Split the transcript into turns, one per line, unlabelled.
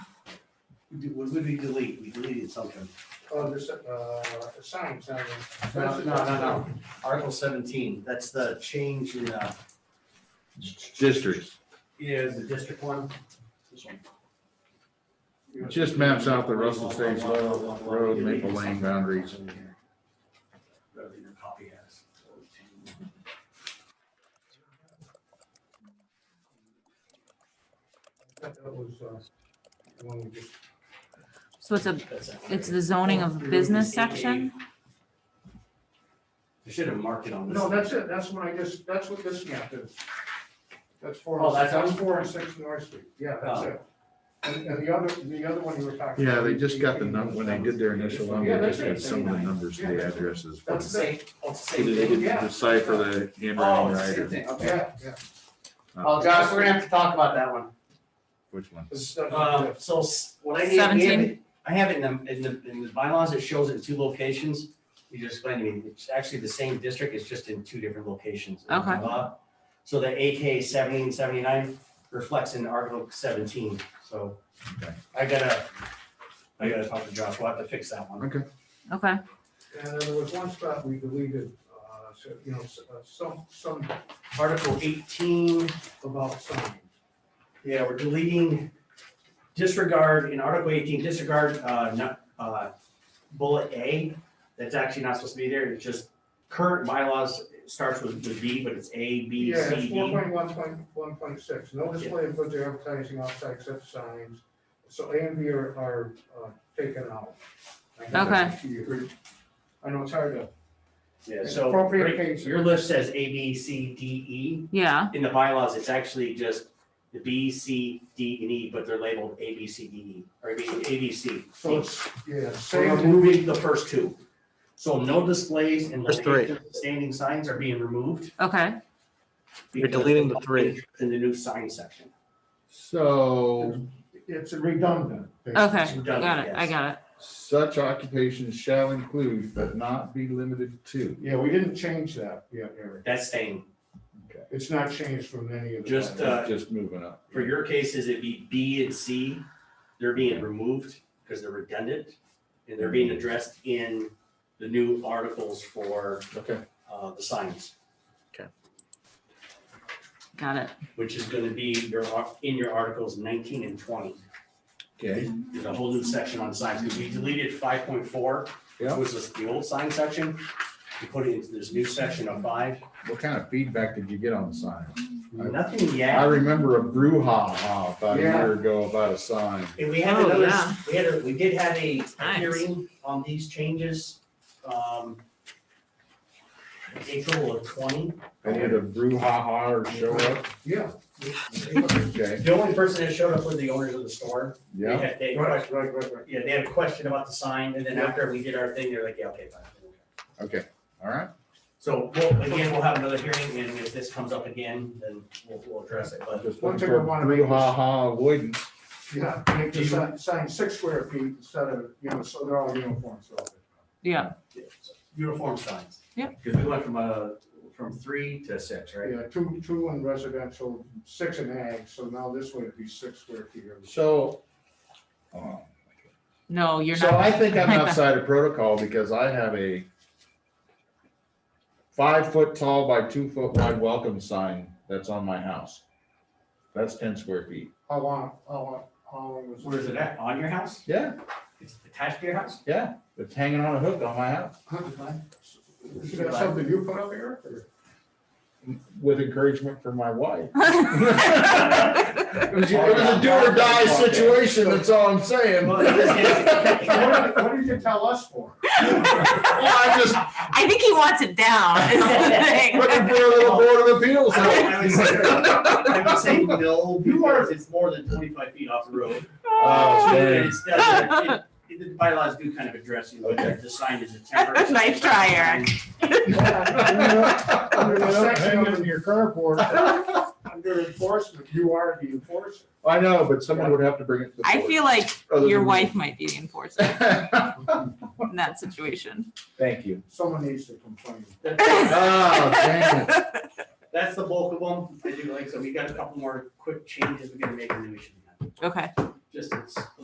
We did- What did we delete? We deleted something.
Oh, there's, uh, signs, I mean.
No, no, no, no. Article seventeen, that's the change in, uh,
districts.
yeah, the district one. This one.
It just maps out the Russell Stage Road, Maple Lane boundaries.
Whatever your copy has.
That was, uh, the one we just,
So it's a,
That's it.
it's the zoning of business section?
I should have marked it on this.
no, that's it, that's when I just, that's what this map is. That's four,
Oh, that's- Oh.
that's four and six North Street, yeah, that's it. And, and the other, the other one you were talking.
Yeah,
about,
they just got the num,
number
when they did their initial number, they just got some of the numbers, the addresses.
That's the
So
same, that's the
they
same thing.
didn't decipher the
Oh,
handwriting
it's the
right
same
or
thing, okay.
Yeah, yeah.
Oh, Josh, we're gonna have to talk about that one.
which one.
This doesn't-
Um, so s- what I need, we have
17?
it, I have it in the, in the, in the bylaws, it shows it in two locations. You just explained to me, it's actually the same district, it's just in two different locations.
Okay.
Uh, So the AK seventeen seventy-nine reflects in Article seventeen, so
Okay.
I gotta, I gotta talk to Josh, we'll have to fix that one.
Okay.
Okay,
And there was one spot we deleted, uh, so, you know, s- uh, some, some article
Article eighteen,
about signs.
yeah, we're deleting disregard, in Article eighteen, disregard, uh, not, uh, bullet A, that's actually not supposed to be there, it's just current bylaws it starts with, with B, but it's A, B,
Yeah,
C,
it's four
D.
point one point, one point six, no display of goods or advertising outside such signs, so A and B are, are, uh, taken out. I think that's what you heard. I know it's hard to,
Yeah, so,
Appropriate
right-
page.
your list says A, B, C, D,
yeah,
E, in the bylaws, it's actually just the B, C, D, and E, but they're labeled A, B, C, D, E, or A, B, A, B, C.
so it's, yeah,
So we're
same,
removing the first two. So no displays and
There's three.
locations of standing signs are being removed.
okay.
You're deleting the
because
three.
In the new sign section.
So
it's redundant.
Okay,
It's redundant,
got it, I
yes.
got it.
such occupations shall include but not be limited to.
Yeah, we didn't change that yet, Eric,
That's staying,
it's not changed from any of the.
Just,
bylaws.
Uh,
Just moving up.
for your cases, it'd be B and C, they're being removed because they're redundant. And they're being addressed in the new articles for
Okay.
uh, the signs,
Got it.
which is gonna be your, ar- in your articles nineteen and twenty.
Okay.
There's a whole new section on signs, because we deleted five point four, which
Yeah.
was this- the old sign section. We put it into this new section of five,
What kind of feedback did you get on the sign?
nothing
I
yet.
remember a brouhaha about a
Yeah.
year ago about a sign.
And we had
Oh,
another,
yeah.
we had, a we did have a
Nice.
hearing on these changes. um, April of twenty.
I did a brouhaha or show up.
Yeah.
Okay,
The only person that showed up was the owners of the store. They
yeah.
had- they-
Right, right, right, right.
Yeah, they had a question about the sign, and then
Yeah.
after we did our thing, they're like, yeah, okay, fine.
Okay, all right.
So, we'll again, we'll have another hearing, and if this comes up again, then we'll, we'll address it, but.
Just
One
looking
thing
for
I wanna make is-
brouhaha avoidance.
Yeah, make the sign, sign six square feet instead of, you know, so they're all uniform, so.
Yeah,
Uniform signs.
Yeah.
Because we went from, uh, from three to six, right?
Yeah, two, two in residential, six in ag, so now this would be six square feet. or-
So. um,
no, you're
So I
not,
think I'm outside of protocol because I have a five foot tall by two foot wide welcome sign that's on my house. That's ten square feet.
How long, how long, how long was?
Where is it at? On your house?
Yeah,
It's attached to your house?
yeah. It's hanging on a hook on my house
Is that something you put up, Eric, or?
with encouragement from my wife. It was,
it was
a do or die situation, that's all I'm saying.
Well, in this case-
What did- what did you tell us for?
I'm just
I think he wants it down, is the
looking
thing.
for a little board of appeals.
I would say- I would say no, because it's more than twenty-five feet off the road.
Oh,
So
man.
it's- that's it. It- The bylaws do kind of address you, but
Okay.
the sign is a temporary.
Nice try, Eric.
Hang it in
your carport.
Under enforcement, you are the enforcer.
I know, but someone would have to bring it to the.
I
board,
feel like
other
your
than-
wife might be the enforcer in that situation.
Thank you.
Someone needs to complain.
That's
Oh, dang it.
that's the bulk of them. They do like, so we got a couple more quick changes we're gonna make and then we should be done.
Okay.
Just, it's